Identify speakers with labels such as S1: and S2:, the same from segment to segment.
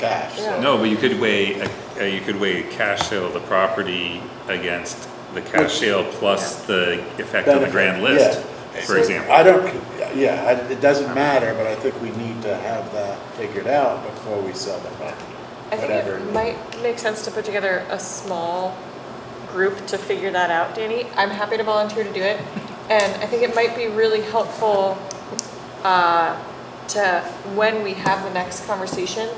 S1: cash. so-
S2: No, but you could weigh, uh, you could weigh cash sale of the property against the
S1: Which-
S2: cash sale plus the effect on the
S1: Benefit,
S2: grand list,
S1: yeah.
S2: for example.
S1: I don't, yeah, I- it doesn't matter, but I think we need to have that figured out before we sell the property,
S3: I think
S1: whatever.
S3: it might make sense to put together a small group to figure that out, Danny. I'm happy to volunteer to do it. And I think it might be really helpful uh, to, when we have the next conversation,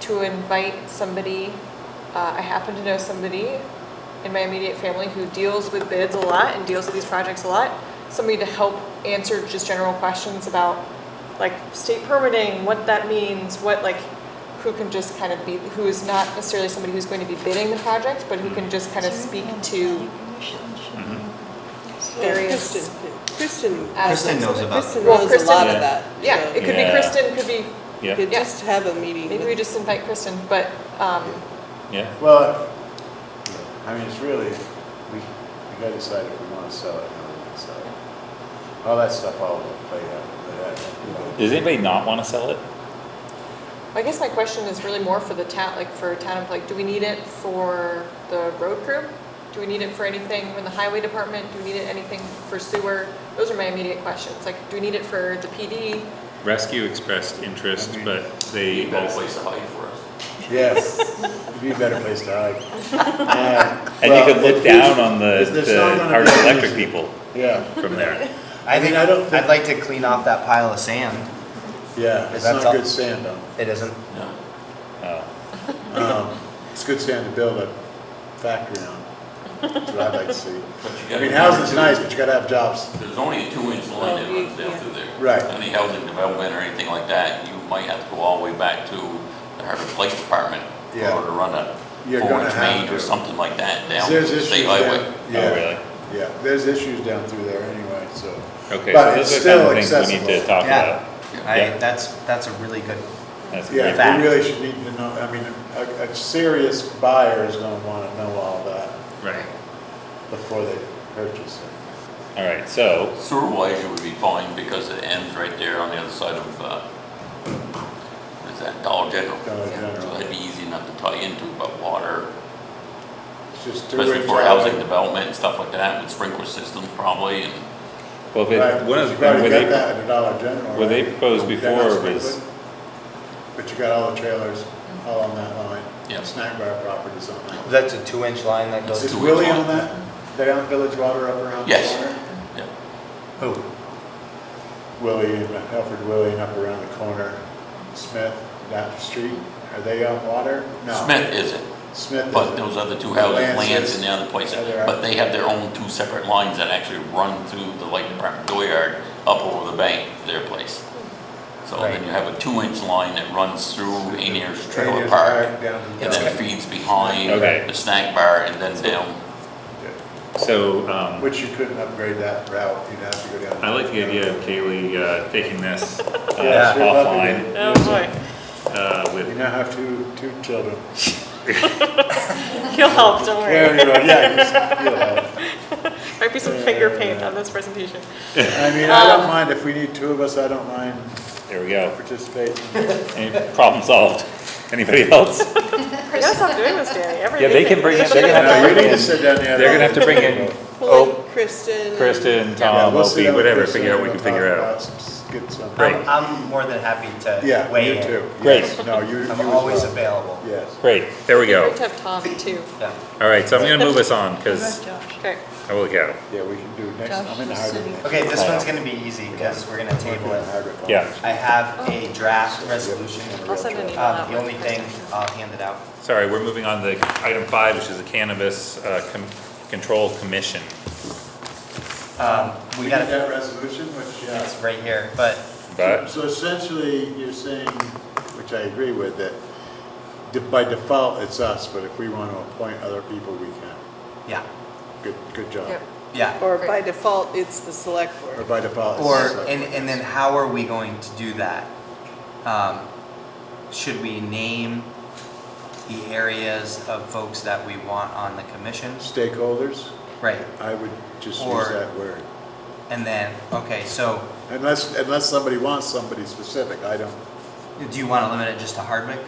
S3: to invite somebody, uh, I happen to know somebody in my immediate family who deals with bids a lot and deals with these projects a lot, somebody to help answer just general questions about like state permitting, what that means, what like, who can just kind of be, who is not necessarily somebody who's going to be bidding the project, but who can just kind of speak to various.
S4: Kristen, Kristen,
S5: Kristen knows about
S4: Kristen
S3: Well,
S4: knows a
S3: Kristen-
S4: lot of
S2: Yeah.
S4: that.
S3: Yeah,
S4: so
S3: it could be
S2: Yeah.
S3: Kristen, could be,
S4: we
S2: Yeah,
S4: Could
S3: Yeah.
S4: just have a meeting
S3: maybe we
S4: with,
S3: just invite Kristen, but, um,
S2: yeah.
S1: Well, I mean, it's really, we, we gotta decide if we wanna sell it or not, so. All that stuff all will play out, but, uh, you know.
S2: Does anybody not wanna sell it?
S3: I guess my question is really more for the town, like for town, of like, do we need it for the road crew? Do we need it for anything in the highway department? Do we need it anything for sewer? Those are my immediate questions, like, do we need it for the PD?
S2: Rescue expressed interest, but
S6: Be
S2: they
S6: a better
S2: also,
S6: place to hide for us.
S1: Yes, it'd be a better place to hide. Uh,
S2: and you
S1: well,
S2: could look
S1: it- it's-
S2: down on the,
S1: it's- there's not
S2: the
S1: gonna
S2: Hardwick
S1: be an
S2: Electric
S1: issue.
S2: people
S1: Yeah,
S2: from there.
S1: I
S5: I
S1: mean,
S5: think,
S1: I don't
S5: I'd
S1: think-
S5: like to clean off that pile of sand.
S1: yeah, it's
S5: That's
S1: not
S5: all-
S1: good sand though.
S5: It isn't.
S6: No.
S2: Oh,
S1: Um, It's good sand to build a factory on, that's what I'd like to see.
S6: But you
S1: I
S6: gotta
S1: mean,
S6: remember,
S1: housing's
S6: too,
S1: nice, but you gotta have jobs.
S6: There's only a two-inch line that runs down through there.
S1: Right.
S6: Any housing development or anything like that, you might have to go all the way back to the Harvard Police Department in
S1: Yeah.
S6: order to run a
S1: You're gonna
S6: four-inch
S1: have
S6: main
S1: to.
S6: or something like that down
S1: There's
S6: the
S1: issues
S6: state
S1: down,
S6: highway.
S2: oh,
S1: yeah,
S2: really?
S1: yeah, there's issues down through there anyway, so.
S2: Okay, so
S1: But it's
S2: those are the kind of
S1: still
S2: things we need to
S1: accessible.
S2: talk
S5: Yeah.
S2: about.
S5: I,
S2: Yeah.
S5: that's, that's a really good,
S2: That's great.
S1: Yeah,
S5: Fact.
S1: we really should need to know, I mean, a, a serious buyer is gonna wanna know all that
S2: Right,
S1: before they purchase it.
S2: all right, so,
S6: Sewer-wise, it would be fine because it ends right there on the other side of, uh, what is that, Dollar General.
S1: Dollar General.
S6: So that'd be easy enough to tie into, but water,
S1: It's just two
S6: especially
S1: inch
S6: for
S1: high.
S6: housing development and stuff like that, with sprinkler systems probably, and
S2: well, if
S1: Right,
S2: it, one of,
S1: you've
S2: the-
S1: already
S2: were
S1: got
S2: they,
S1: that at the Dollar General,
S2: were they
S1: right?
S2: proposed
S1: They're not
S2: before was-
S1: sprinkled, But you got all the trailers all on that line.
S6: Yeah.
S1: Snack bar properties on that.
S5: that's a two-inch line that goes
S1: Is
S5: to,
S6: two-
S1: Willie
S6: inch
S1: on
S6: line.
S1: that? They on Village Water up around the
S6: Yes.
S1: corner?
S6: yeah.
S5: who?
S1: Willie, and Alfred Willie and up around the corner, Smith, down the street, are they on water? No.
S6: Smith isn't,
S1: Smith
S6: but
S1: is.
S6: those other two houses,
S1: Lance
S6: Lance
S1: is-
S6: and the other places,
S1: Yeah, they're out.
S6: but they have their own two separate lines that actually run through the light department dooryard up over the bank, to their place. So then
S5: Right.
S6: you have a two-inch line that runs through Anier's Trailer
S1: Rainier's
S6: Park,
S1: Park down to
S6: and
S1: Dollar.
S6: then feeds behind
S2: Okay.
S6: the snack bar, and then down
S2: so, um,
S1: Which you couldn't upgrade that route, you'd have to go down.
S2: I like the idea of Kaylee uh, taking this uh,
S1: Yeah, sure, that'd be
S2: offline
S1: good.
S3: Oh, boy,
S2: uh,
S1: You
S2: with,
S1: now have two, two children.
S3: he'll help, don't worry.
S1: Yeah, you're right, yeah, you're- you'll have.
S3: Might be some finger paint on this presentation.
S1: I mean, I
S4: Um,
S1: don't mind, if we need two of us, I don't mind
S2: there we go.
S1: participating.
S2: Any- Problem solved. Anybody else?
S3: You gotta stop doing this, Danny, every
S2: Yeah, they can bring
S3: day.
S2: it- they can have-
S1: No, you need to sit down the other.
S2: They're gonna have to bring in
S4: pulling
S2: Oh.
S4: Kristen. and-
S2: Kristen,
S1: Yeah,
S2: Tom,
S1: we'll sit
S2: Opie,
S1: down with
S2: whatever,
S1: Kristen
S2: figure out what we
S1: and
S2: can figure
S1: talk
S2: out.
S1: about some- Get some.
S2: Great.
S5: I'm more than happy to
S1: Yeah,
S5: weigh
S1: you
S5: in.
S1: too.
S2: Great.
S1: Yes. No, you, you as
S5: I'm always
S1: well.
S5: available.
S1: Yes.
S2: Great, there we
S3: Great
S2: go.
S3: to have Tom too.
S5: Yeah.
S2: All right, so I'm gonna move us on, because,
S3: Okay.
S2: holy cow.
S1: Yeah, we can do next, I'm in
S4: Josh
S1: Hardwick.
S4: is sitting-
S1: next.
S5: Okay, this one's gonna be easy, because we're gonna table
S1: I'm in
S5: it.
S1: Hardwick.
S2: Yeah.
S5: I have a draft resolution.
S3: I'll send an email
S5: Um,
S3: out.
S5: the only thing, I'll hand it out.
S2: Sorry, we're moving on to item five, which is the Cannabis uh, Com- Control Commission.
S5: Um, we
S1: We
S5: got
S1: got
S5: it,
S1: that resolution, which, yeah.
S5: it's right here, but
S2: But,
S1: So essentially, you're saying, which I agree with, that de- by default, it's us, but if we want to appoint other people, we can.
S5: Yeah,
S1: Good, good job.
S3: Yep.
S5: yeah.
S4: Or by default, it's the select board.
S1: Or by default, it's
S5: Or,
S1: us. like-
S5: and, and then how are we going to do that? Um, Should we name the areas of folks that we want on the commissions?
S1: Stakeholders,
S5: Right,
S1: I would just
S5: Or-
S1: use that word.
S5: and then, okay, so
S1: Unless, unless somebody wants somebody specific, I don't,
S5: do you want to limit it just to Hardwick?